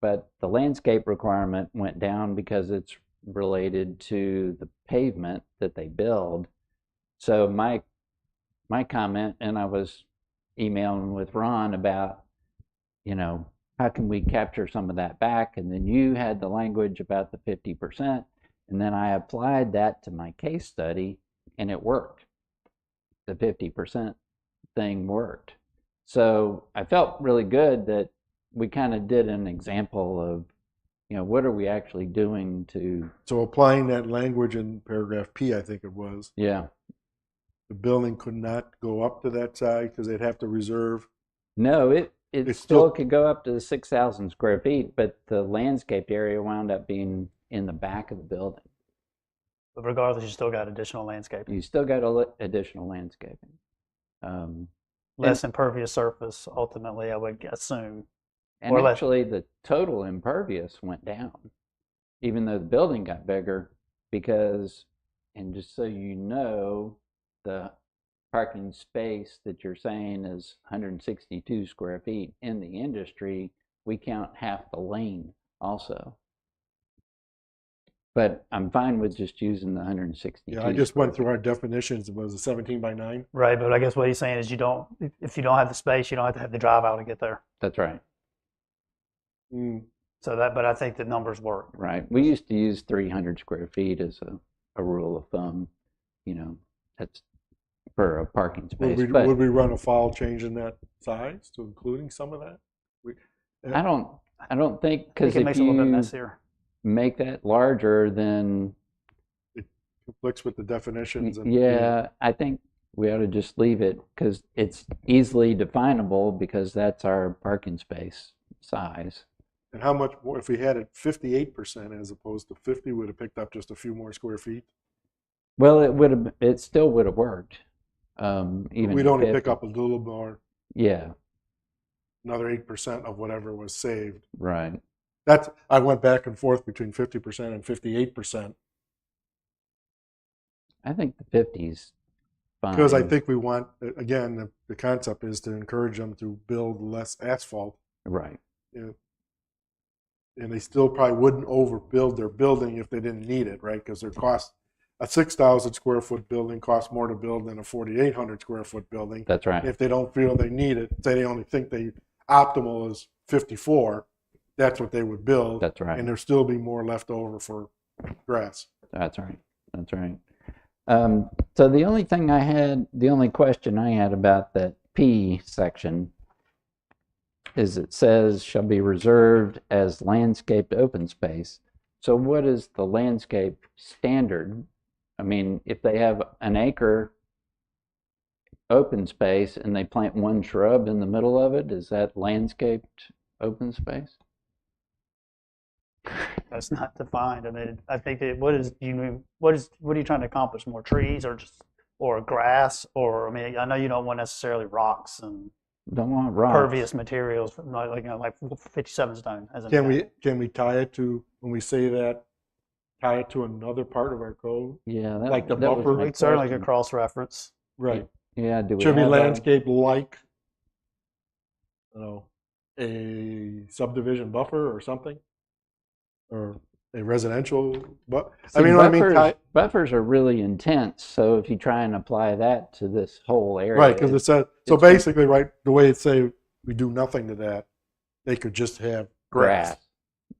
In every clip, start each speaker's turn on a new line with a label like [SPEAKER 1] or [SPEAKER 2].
[SPEAKER 1] but the landscape requirement went down because it's related to the pavement that they build. So my, my comment, and I was emailing with Ron about, you know, how can we capture some of that back? And then you had the language about the fifty percent. And then I applied that to my case study and it worked. The fifty percent thing worked. So I felt really good that we kind of did an example of, you know, what are we actually doing to,
[SPEAKER 2] So applying that language in paragraph P, I think it was,
[SPEAKER 1] yeah.
[SPEAKER 2] the building could not go up to that size because they'd have to reserve.
[SPEAKER 1] No, it, it
[SPEAKER 2] It's
[SPEAKER 1] still
[SPEAKER 2] still-
[SPEAKER 1] could go up to the six thousand square feet, but the landscaped area wound up being in the back of the building.
[SPEAKER 3] But regardless, you still got additional landscaping,
[SPEAKER 1] You still got a li- additional landscaping. Um,
[SPEAKER 3] less impervious surface. Ultimately, I would assume.
[SPEAKER 1] And
[SPEAKER 3] Or less.
[SPEAKER 1] actually, the total impervious went down, even though the building got bigger, because, and just so you know, the parking space that you're saying is 162 square feet in the industry, we count half the lane also. But I'm fine with just using the 162.
[SPEAKER 2] Yeah, I just
[SPEAKER 1] square
[SPEAKER 2] went through our definitions. It was a 17 by 9.
[SPEAKER 3] Right, but I guess what he's saying is you don't. If you don't have the space, you don't have to have the drive out to get there.
[SPEAKER 1] feet. That's right,
[SPEAKER 2] Mm,
[SPEAKER 3] So that, but I think the numbers work.
[SPEAKER 1] right. We used to use 300 square feet as a, a rule of thumb, you know, that's for a parking
[SPEAKER 2] Would
[SPEAKER 1] space.
[SPEAKER 2] we,
[SPEAKER 1] but
[SPEAKER 2] would we run afoul changing that size to including some of that?
[SPEAKER 1] I don't, I don't think,
[SPEAKER 3] I think
[SPEAKER 1] because
[SPEAKER 3] it
[SPEAKER 1] if
[SPEAKER 3] makes it a little bit
[SPEAKER 1] you
[SPEAKER 3] messier.
[SPEAKER 1] make that larger, then,
[SPEAKER 2] Conflicts with the definitions and.
[SPEAKER 1] yeah, I think we ought to just leave it because it's easily definable because that's our parking space size.
[SPEAKER 2] And how much more, if we had it 58% as opposed to 50, would have picked up just a few more square feet?
[SPEAKER 1] Well, it would have, it still would have worked. Um,
[SPEAKER 2] But
[SPEAKER 1] even
[SPEAKER 2] We'd only
[SPEAKER 1] if-
[SPEAKER 2] pick up a little more,
[SPEAKER 1] Yeah,
[SPEAKER 2] another 8% of whatever was saved.
[SPEAKER 1] right.
[SPEAKER 2] That's, I went back and forth between 50% and 58%.
[SPEAKER 1] I think the 50s.
[SPEAKER 2] Because I
[SPEAKER 1] fine.
[SPEAKER 2] think we want, again, the, the concept is to encourage them to build less asphalt,
[SPEAKER 1] Right.
[SPEAKER 2] and they still probably wouldn't overbuild their building if they didn't need it, right? Because their cost, a 6,000 square foot building costs more to build than a 4,800 square foot building.
[SPEAKER 1] That's right.
[SPEAKER 2] If they don't feel they need it, say they only think they optimal is 54, that's what they would build,
[SPEAKER 1] That's right.
[SPEAKER 2] and there'll still be more left over for grass.
[SPEAKER 1] That's right. That's right. Um, so the only thing I had, the only question I had about that P section is it says shall be reserved as landscaped open space. So what is the landscape standard? I mean, if they have an acre open space and they plant one shrub in the middle of it, is that landscaped open space?
[SPEAKER 3] That's not defined. I mean, I think that what is you mean- what is what are you trying to accomplish? More trees or just or grass or I mean, I know you don't want necessarily rocks and
[SPEAKER 1] Don't want rocks.
[SPEAKER 3] pervious materials like like, you know, like 57 stone as an
[SPEAKER 2] Can we,
[SPEAKER 3] example.
[SPEAKER 2] can we tie it to, when we say that, tie it to another part of our code?
[SPEAKER 1] Yeah, that,
[SPEAKER 2] Like the
[SPEAKER 1] that was
[SPEAKER 2] buffer?
[SPEAKER 1] my
[SPEAKER 3] We certainly could
[SPEAKER 1] question.
[SPEAKER 3] cross reference.
[SPEAKER 2] Right.
[SPEAKER 1] Yeah, do we uh,
[SPEAKER 2] Should be
[SPEAKER 1] have a-
[SPEAKER 2] landscape like, you know, a subdivision buffer or something? Or a residential, but, I
[SPEAKER 1] See,
[SPEAKER 2] mean, what I mean,
[SPEAKER 1] buffers-
[SPEAKER 2] tie-
[SPEAKER 1] buffers are really intense. So if you try and apply that to this whole area,
[SPEAKER 2] right, because it says, so
[SPEAKER 1] it's been-
[SPEAKER 2] basically, right, the way it say, we do nothing to that, they could just have grass,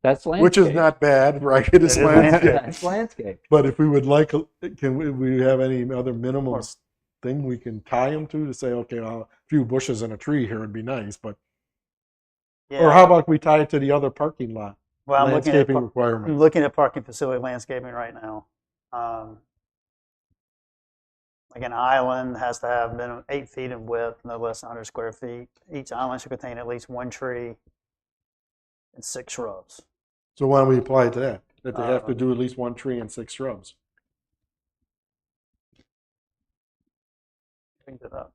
[SPEAKER 1] That's landscape.
[SPEAKER 2] which is not bad, right? It is
[SPEAKER 3] It is landscape.
[SPEAKER 2] landscape.
[SPEAKER 1] That's landscape.
[SPEAKER 2] But if we would like, a- can we, we have any other minimum s- thing we can tie them to to say, okay, well, a few bushes and a tree here would be nice, but, or how about we tie it to the other parking lot?
[SPEAKER 3] well, I'm looking at
[SPEAKER 2] landscaping
[SPEAKER 3] par- I'm
[SPEAKER 2] requirements.
[SPEAKER 3] looking at parking facility landscaping right now. Um, like an island has to have minimum eight feet in width, no less than 100 square feet. Each island should contain at least one tree and six shrubs.
[SPEAKER 2] So why don't we apply it to that? That they have to
[SPEAKER 3] Uh,
[SPEAKER 2] do at least one tree and six shrubs.
[SPEAKER 3] Think that up.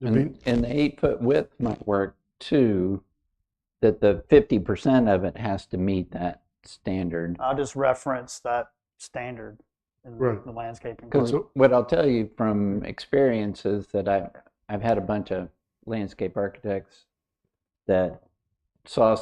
[SPEAKER 2] It'd be-
[SPEAKER 1] And, and the eight foot width might work too. That the fifty percent of it has to meet that standard.
[SPEAKER 2] Uh,
[SPEAKER 3] I'll just reference that standard in
[SPEAKER 2] Right.
[SPEAKER 3] the landscaping.
[SPEAKER 1] Because
[SPEAKER 2] so-
[SPEAKER 1] what I'll tell you from experience is that I've I've had a bunch of landscape architects that saw